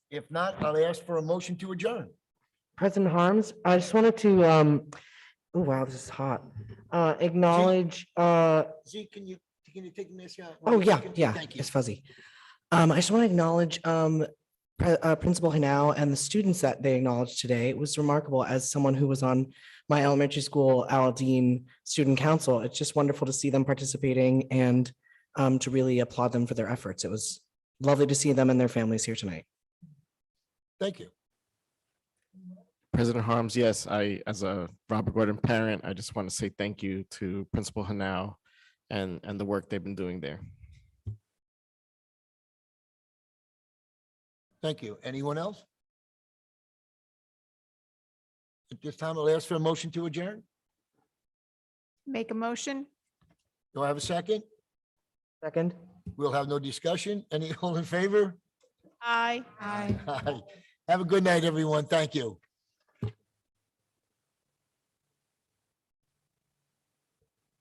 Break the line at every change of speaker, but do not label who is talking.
If not, I'll ask for a motion to adjourn.
President Harms, I just wanted to, um, oh wow, this is hot. Uh, acknowledge, uh,
Zeke, can you, can you take me a shot?
oh yeah, yeah,
Thank you.
it's fuzzy. Um, I just want to acknowledge, um, Pre- uh, Principal Hanau and the students that they acknowledged today. It was remarkable as someone who was on my elementary school Aladdin Student Council. It's just wonderful to see them participating and, um, to really applaud them for their efforts. It was lovely to see them and their families here tonight.
Thank you.
President Harms, yes, I, as a Robert Gordon parent, I just want to say thank you to Principal Hanau and, and the work they've been doing there.
Thank you. Anyone else? At this time, I'll ask for a motion to adjourn.
Make a motion?
Do I have a second?
Second.
We'll have no discussion. Any all in favor?
Aye. Aye.
Aye. Have a good night, everyone. Thank you.